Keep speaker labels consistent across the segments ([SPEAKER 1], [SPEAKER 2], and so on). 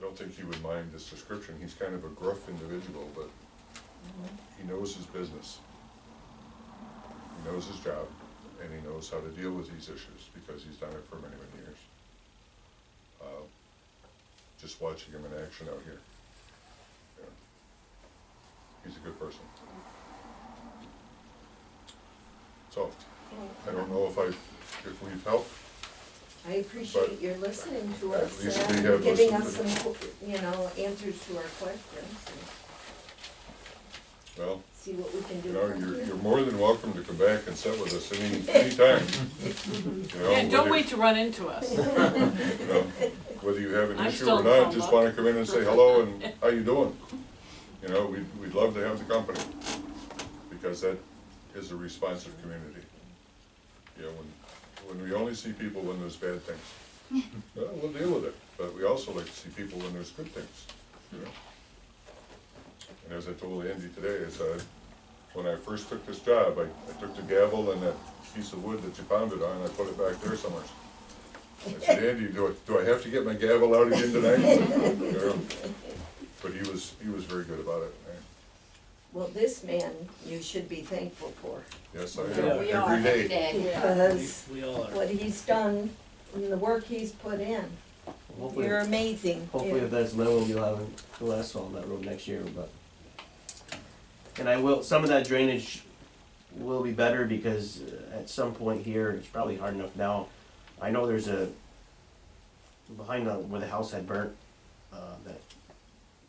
[SPEAKER 1] don't think he would mind this description, he's kind of a gruff individual, but he knows his business. He knows his job, and he knows how to deal with these issues, because he's done it for many, many years. Uh, Just watching him in action out here. Yeah. He's a good person. So, I don't know if I, if we've helped,
[SPEAKER 2] I appreciate your listening to
[SPEAKER 1] At
[SPEAKER 2] us
[SPEAKER 1] least we
[SPEAKER 2] and
[SPEAKER 1] have
[SPEAKER 2] giving us
[SPEAKER 1] listened
[SPEAKER 2] some, you know, answers to our questions and
[SPEAKER 1] well,
[SPEAKER 2] see what we can do.
[SPEAKER 1] You know,
[SPEAKER 2] from
[SPEAKER 1] you're,
[SPEAKER 2] here.
[SPEAKER 1] you're more than welcome to come back and sit with us any, anytime. You know,
[SPEAKER 3] Yeah, don't
[SPEAKER 1] whether-
[SPEAKER 3] wait to run into us.
[SPEAKER 1] you know, Whether you have an
[SPEAKER 3] I'm
[SPEAKER 1] issue
[SPEAKER 3] still
[SPEAKER 1] or not,
[SPEAKER 3] from
[SPEAKER 1] just
[SPEAKER 3] Buck.
[SPEAKER 1] wanna come in and say hello and how you doing? You know, we'd, we'd love to have the company, because that is a responsive community. You know, when, when we only see people when there's bad things, well, we'll deal with it, but we also like to see people when there's good things, you know? And as I told Andy today, I said, when I first took this job, I, I took the gavel and that piece of wood that you pounded on, I put it back there somewhere. I said, Andy, do I, do I have to get my gavel out again tonight? You know? But he was, he was very good about it, eh?
[SPEAKER 2] Well, this man, you should be thankful for,
[SPEAKER 1] yes, I
[SPEAKER 4] Yeah,
[SPEAKER 1] am,
[SPEAKER 4] we
[SPEAKER 1] every day.
[SPEAKER 4] We
[SPEAKER 2] because
[SPEAKER 4] we all are.
[SPEAKER 2] what he's done and the work he's put in,
[SPEAKER 5] Hopefully,
[SPEAKER 2] you're amazing.
[SPEAKER 5] hopefully if that's level, you'll have the last on that road next year, but. And I will, some of that drainage will be better because uh, at some point here, it's probably hard enough now. I know there's a, behind the, where the house had burnt, uh, that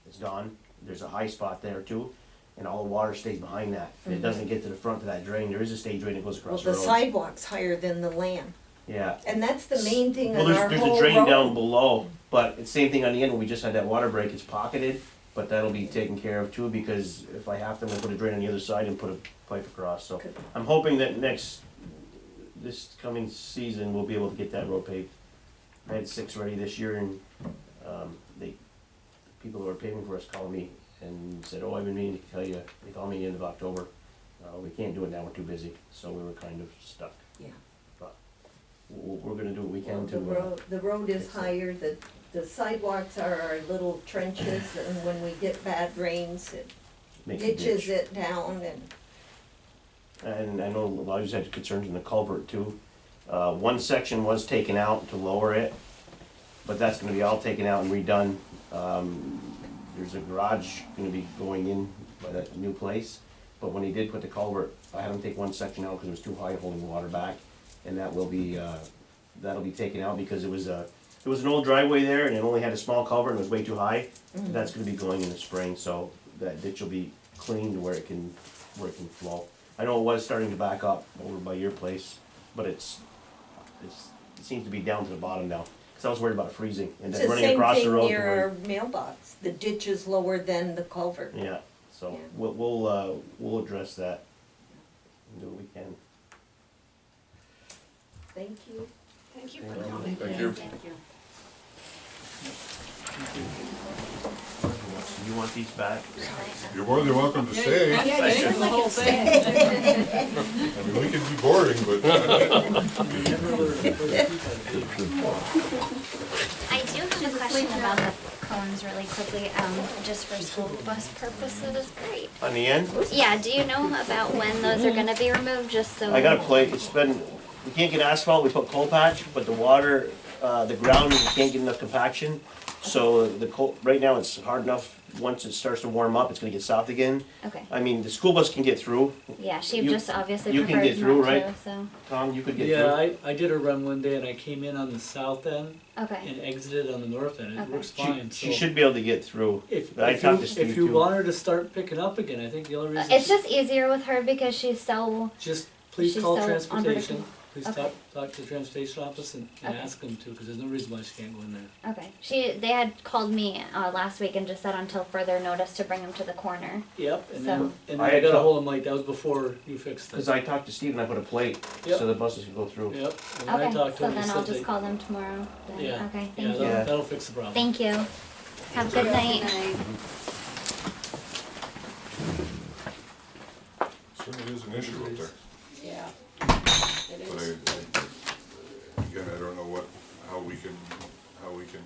[SPEAKER 5] is gone, there's a high spot there too. And all the water stays behind that, it doesn't get to the front of that drain, there is a state drain that goes
[SPEAKER 2] Mm-hmm. Well,
[SPEAKER 5] across the
[SPEAKER 2] the
[SPEAKER 5] road.
[SPEAKER 2] sidewalk's higher than the land,
[SPEAKER 5] Yeah.
[SPEAKER 2] and that's the main thing
[SPEAKER 5] Well,
[SPEAKER 2] on our
[SPEAKER 5] there's, there's a
[SPEAKER 2] whole
[SPEAKER 5] drain
[SPEAKER 2] road.
[SPEAKER 5] down below, but it's same thing on the end, when we just had that water break, it's pocketed, but that'll be taken care of too, because if I have to, I'm gonna put a drain on the other side and put a pipe across, so.
[SPEAKER 2] Good.
[SPEAKER 5] I'm hoping that next, this coming season, we'll be able to get that road paved. I had six ready this year and, um, they, people who are paving for us called me and said, oh, I've been meaning to tell you, they called me the end of October. Uh, we can't do it now, we're too busy, so we were kind of stuck.
[SPEAKER 2] Yeah.
[SPEAKER 5] But we're, we're gonna do what we
[SPEAKER 2] Well,
[SPEAKER 5] can
[SPEAKER 2] The
[SPEAKER 5] to, uh,
[SPEAKER 2] road, the road is
[SPEAKER 5] fix it.
[SPEAKER 2] higher, the, the sidewalks are our little trenches, and when we get bad rains, it
[SPEAKER 5] make the ditch.
[SPEAKER 2] ditches it down and,
[SPEAKER 5] And I know a lot of you had concerns in the culvert too. Uh, one section was taken out to lower it, but that's gonna be all taken out and redone. Um, there's a garage gonna be going in by that new place, but when he did put the culvert, I had him take one section out because it was too high holding water back. And that will be, uh, that'll be taken out because it was a, it was an old driveway there and it only had a small culvert and it was way too high.
[SPEAKER 2] Mm.
[SPEAKER 5] That's gonna be going in the spring, so that ditch will be cleaned where it can, where it can flow. I know it was starting to back up over by your place, but it's, it's, it seems to be down to the bottom now. Cause I was worried about freezing and
[SPEAKER 2] it's
[SPEAKER 5] then
[SPEAKER 2] the
[SPEAKER 5] running
[SPEAKER 2] same
[SPEAKER 5] across the
[SPEAKER 2] thing
[SPEAKER 5] road. to
[SPEAKER 2] near
[SPEAKER 5] where-
[SPEAKER 2] our mailbox, the ditch is lower than the culvert.
[SPEAKER 5] Yeah, so
[SPEAKER 2] Yeah.
[SPEAKER 5] we'll, we'll, uh, we'll address that. and Do what we can.
[SPEAKER 2] Thank you.
[SPEAKER 6] Thank you
[SPEAKER 5] Thank
[SPEAKER 6] for
[SPEAKER 5] you.
[SPEAKER 6] coming.
[SPEAKER 1] Thank you.
[SPEAKER 6] Thank you.
[SPEAKER 5] You want these back?
[SPEAKER 1] You're more than welcome to stay, I
[SPEAKER 3] Yeah, you do the whole thing.
[SPEAKER 1] mean, we can be boring, but uh,
[SPEAKER 4] We never were the first people.
[SPEAKER 7] I do have a question about the cones really quickly, um, just for school bus purposes, great.
[SPEAKER 5] On the end?
[SPEAKER 7] Yeah, do you know about when those are gonna be removed, just so?
[SPEAKER 5] I got a plate, it's been, we can't get asphalt, we put coal patch, but the water, uh, the ground, we can't get enough compaction. So the coal, right now, it's hard enough, once it starts to warm up, it's gonna get soft again.
[SPEAKER 7] Okay,
[SPEAKER 5] I mean, the school bus can get through,
[SPEAKER 7] yeah, she
[SPEAKER 5] You-
[SPEAKER 7] just obviously
[SPEAKER 5] you can
[SPEAKER 7] prefers
[SPEAKER 5] get through,
[SPEAKER 7] not to,
[SPEAKER 5] right?
[SPEAKER 7] so,
[SPEAKER 5] Tom, you could get
[SPEAKER 4] Yeah,
[SPEAKER 5] through.
[SPEAKER 4] I, I did a run one day and I came in on the south end
[SPEAKER 7] okay,
[SPEAKER 4] and exited on the north end. It
[SPEAKER 7] Okay.
[SPEAKER 4] works
[SPEAKER 5] She,
[SPEAKER 4] fine, so.
[SPEAKER 5] she should be able to get through.
[SPEAKER 4] If,
[SPEAKER 5] I
[SPEAKER 4] if
[SPEAKER 5] talked to
[SPEAKER 4] you,
[SPEAKER 5] Steve
[SPEAKER 4] if you
[SPEAKER 5] too.
[SPEAKER 4] want her to start picking up again, I think the only reason.
[SPEAKER 7] Uh, it's
[SPEAKER 4] she-
[SPEAKER 7] just easier with her because she's so,
[SPEAKER 4] Just please
[SPEAKER 7] she's
[SPEAKER 4] call
[SPEAKER 7] so
[SPEAKER 4] transportation.
[SPEAKER 7] unpredictable.
[SPEAKER 4] Please
[SPEAKER 7] Okay.
[SPEAKER 4] talk, talk to the transportation office and, and
[SPEAKER 7] Okay.
[SPEAKER 4] ask them to, cause there's no reason why she can't go in there.
[SPEAKER 7] okay, she, they had called me, uh, last week and just said until further notice to bring him to the corner.
[SPEAKER 4] Yep, and then,
[SPEAKER 7] So-
[SPEAKER 4] and then
[SPEAKER 5] I
[SPEAKER 4] I got
[SPEAKER 5] talked-
[SPEAKER 4] ahold of Mike, that was before you fixed it.
[SPEAKER 5] Cause I talked to Steve and I put a plate,
[SPEAKER 4] Yep.
[SPEAKER 5] so the buses can go through.
[SPEAKER 4] Yep, and when I
[SPEAKER 7] Okay,
[SPEAKER 4] talked to
[SPEAKER 7] so
[SPEAKER 4] him, he
[SPEAKER 7] then I'll
[SPEAKER 4] said they.
[SPEAKER 7] just call them tomorrow, then,
[SPEAKER 4] Yeah.
[SPEAKER 7] okay,
[SPEAKER 4] Yeah,
[SPEAKER 7] thank you,
[SPEAKER 5] Yeah.
[SPEAKER 4] that'll, that'll fix the problem.
[SPEAKER 7] thank you, have a good night.
[SPEAKER 1] certainly is an issue up there.
[SPEAKER 6] Yeah. It
[SPEAKER 1] But I,
[SPEAKER 6] is.
[SPEAKER 1] I- again, I don't know what, how we can, how we can